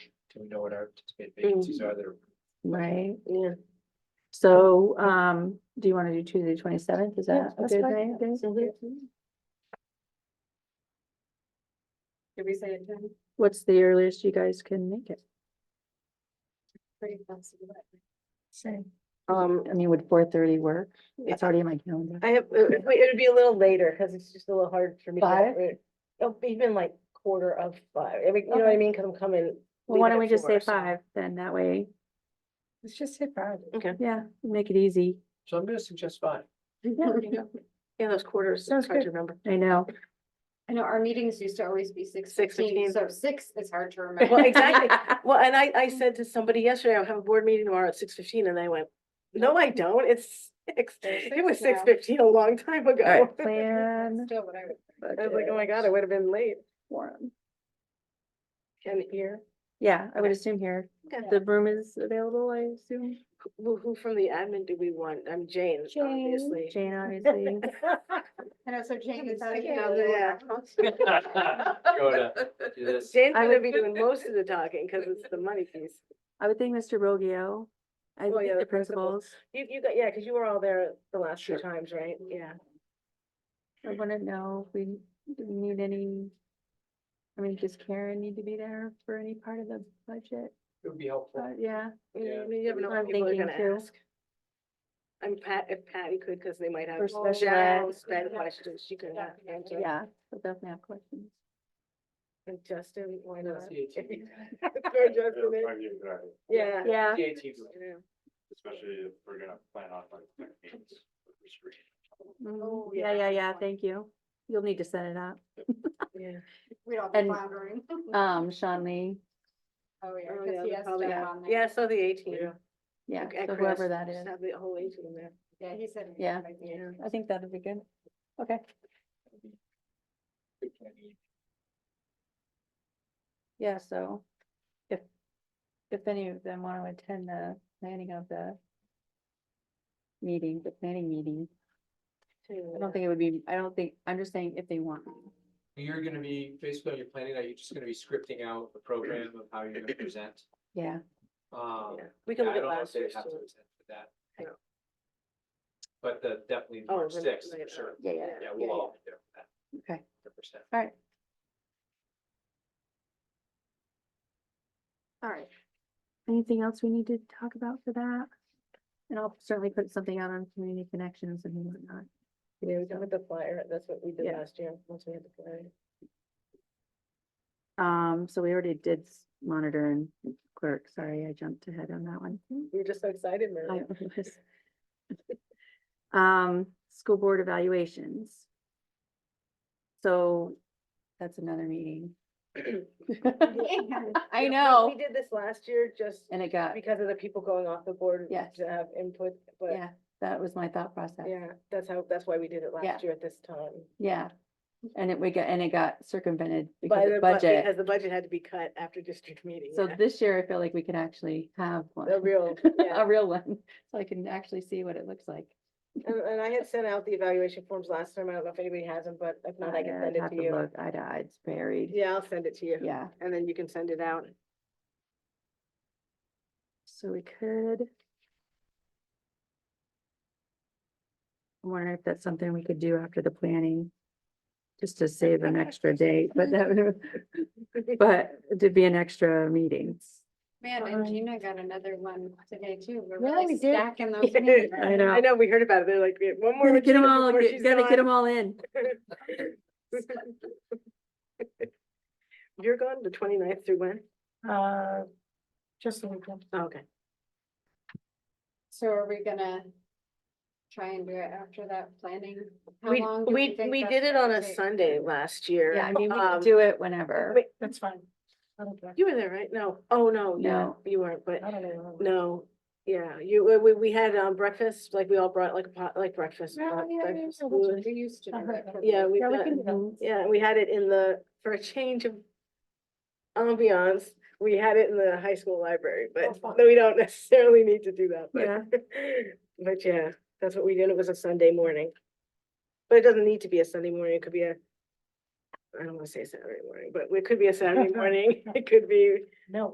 Do we know what our Mm. anticipated vacancies are there? right? Yeah. So, um, do you want to do Tuesday, twenty-seventh? Is that a good night? Did we say it then? What's the earliest you guys can make it? Pretty flexible. Same. Um, I mean, would four-thirty work? It's Yeah. already in my calendar. I have, it it would be a little later, cause it's just a little hard for me. to- Five? Oh, even like quarter of five, I mean, you know what I Okay. mean, 'Cause I'm coming. Well, why leaving don't at we just four, say so- five, then that way, Let's just hit five. Okay. yeah, make it easy. So I'm gonna suggest five. Yeah, those quarters, Sounds it's hard to good. remember. I know. I know our meetings used to always be six 6:15. fifteen, so six is hard to remember. Well, exactly. Well, and I, I said to somebody yesterday, I'll have a board meeting tomorrow at six fifteen, and they went, no, I don't, it's six. It's It was six six now. fifteen a long time ago. Plan. Still what I would- I was like, oh my God, I would have been late. Forum. And here, Yeah, I would assume here. Okay. The room is available, I assume. who, who from the admin do we want? I'm Jane, obviously. Jane, obviously. I know, so Jane is out of Yeah. here. Go to do this. Jane's I gonna be doing most of the talking, cause it's the money piece. I would think Mr. Rogio. I Oh, yeah, think the the principal. principals. You, you got, yeah, cause you were all there the last few Sure. times, right? Yeah. I want to know if we, do we need any? I mean, does Karen need to be there for any part of the budget? It would be helpful. But yeah, You Yeah. you never know That's what what I'm people are thinking gonna too. ask. I'm Pat, if Patty could, cause they might have. For special general ed. sped questions she could have. Yeah. answered. yeah, we'll definitely have questions. And Justin, why not? That's the 18. Throw Justin in. Yeah. Yeah, The 18th, Yeah. especially if we're gonna plan on like. quick meetings with the screen. mhm. Oh, yeah, yeah. yeah, yeah, thank you. You'll need to set it up. Yeah. We'd all And- be floundering. Um, Sean Lee, Oh, yeah, Oh, 'cause yeah, he they're has probably- stuff on there. Yeah, so the eighteen. Yeah. yeah, Okay, so Chris, whoever that just is. Have the whole eighteen in there. Yeah, he said. Yeah. Yeah. I think that'd be good. Okay, we can eat. yeah, so if, if any of them want to attend the planning of the meeting, the planning meeting, I don't think it would be, I don't think, I'm just saying if they want. You're gonna be, basically, on your planning that you're just gonna be scripting out the program of how you're gonna present. Yeah, Oh, Um, Yeah. We yeah, can I don't look at know if last they year's have to too. attend for that. No. But the, definitely Oh, March right, sixth, for right, sure. yeah, yeah, Yeah, we'll all be there for that, okay, hundred percent. all right. All right. Anything else we need to talk about for that? And I'll certainly put something out on community connections and whatnot. Yeah, we done with the flyer. That's what we did Yeah. last year, once we had the flyer. Um, so we already did s- monitor and clerk, sorry, I jumped ahead on that one. We were just so excited, I Mary. was- Um, school board evaluations. So that's another meeting. I We know, did this last year just and it got, because of the people going off the board Yes. to have input, but yeah, that was my thought process. yeah, that's how, that's why we did it Yeah. last year at this time. Yeah, and it, we got, and it got circumvented By because the of bu- budget. Because the budget had to be cut after district meeting. So yeah. this year I feel like we could actually have one, The real, yeah. a real one, so I can actually see what it looks like. And, and I had sent out the evaluation forms last time. I don't know if anybody has them, but if not, I can I'd send it have to to you. look Eye to eye, it's buried, Yeah, I'll send it to you. yeah. And then you can send it out. So we could. I'm wondering if that's something we could do after the planning. Just to save an extra date, but that, would- but it'd be an extra meeting. Man, and Gina got another one today too. We're Yeah, we really did. stacking those meetings. I know. I know, we heard about it. They're like, "We have one more. Gotta get them retreat all, before get- she's gotta get them gone." all in. You're gone the 29th through when? Uh, just a weekend. Oh, Okay. So are we gonna try and do it after that planning? How We, long do we, think we that's did it on gonna a take? Sunday last year. Yeah, I mean, we Um, can do it whenever. wait, That's fine. I don't care. You were there, right? No. Oh, no, yeah, No. you weren't, but I don't know. no. Yeah, you, we- we, we had um breakfast, like we all brought like a pot, like breakfast. Yeah, uh, yeah, yeah, breakfast yeah, food. We used to do Uh-huh. that. for Yeah, the- we've Yeah, we got, can do that. yeah, we had it in the, for a change of ambiance, we had it in the high school library, Oh, but fun. we don't necessarily need to do that, Yeah. but. But yeah, that's what we did. It was a Sunday morning. But it doesn't need to be a Sunday morning. It could be a, I don't wanna say Saturday morning, but it could be a Saturday morning. It could be No.